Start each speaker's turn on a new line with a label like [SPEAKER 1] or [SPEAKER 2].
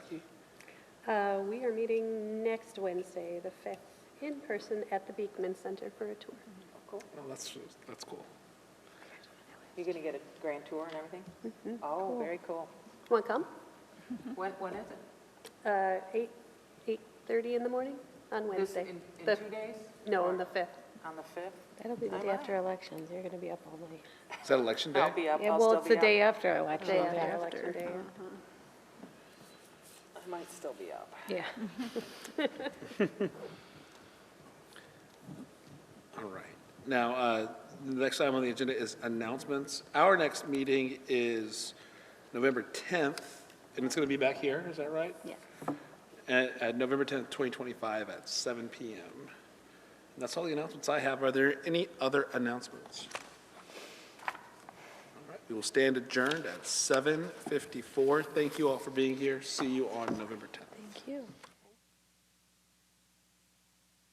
[SPEAKER 1] Uh, We are meeting next Wednesday, the 5th, in person at the Beekman Center for a tour.
[SPEAKER 2] Cool.
[SPEAKER 3] Oh, that's, that's cool.
[SPEAKER 2] You're going to get a grand tour and
[SPEAKER 4] Mm-hmm,
[SPEAKER 2] everything? Oh, very cool.
[SPEAKER 1] Want to come?
[SPEAKER 2] When, when is it?
[SPEAKER 1] Uh, 8, 8:30 in the morning on
[SPEAKER 2] This-
[SPEAKER 1] Wednesday.
[SPEAKER 2] in-
[SPEAKER 1] The-
[SPEAKER 2] In two days?
[SPEAKER 1] No, on
[SPEAKER 2] Or
[SPEAKER 1] the 5th.
[SPEAKER 2] On the 5th?
[SPEAKER 4] That'll be the
[SPEAKER 2] I'm
[SPEAKER 4] day
[SPEAKER 2] out.
[SPEAKER 4] after elections, you're gonna be up all night.
[SPEAKER 3] Is that election
[SPEAKER 2] I'll
[SPEAKER 3] day?
[SPEAKER 2] be up,
[SPEAKER 4] Yeah,
[SPEAKER 2] I'll
[SPEAKER 4] well,
[SPEAKER 2] still
[SPEAKER 4] it's the
[SPEAKER 2] be
[SPEAKER 4] day
[SPEAKER 2] up.
[SPEAKER 4] after election.
[SPEAKER 1] Day
[SPEAKER 4] the
[SPEAKER 1] after
[SPEAKER 4] day
[SPEAKER 1] election day.
[SPEAKER 2] I might still be up.
[SPEAKER 4] Yeah.
[SPEAKER 3] All right. Now, uh, the next item on the agenda is announcements. Our next meeting is November 10th, and it's going to be back here, is that right?
[SPEAKER 1] Yes.
[SPEAKER 3] At, at November 10th, 2025, at 7 PM. And that's all the announcements I have. Are there any other announcements? All right, we will stand adjourned at 7:54. Thank you all for being here. See you on November 10th.
[SPEAKER 4] Thank you.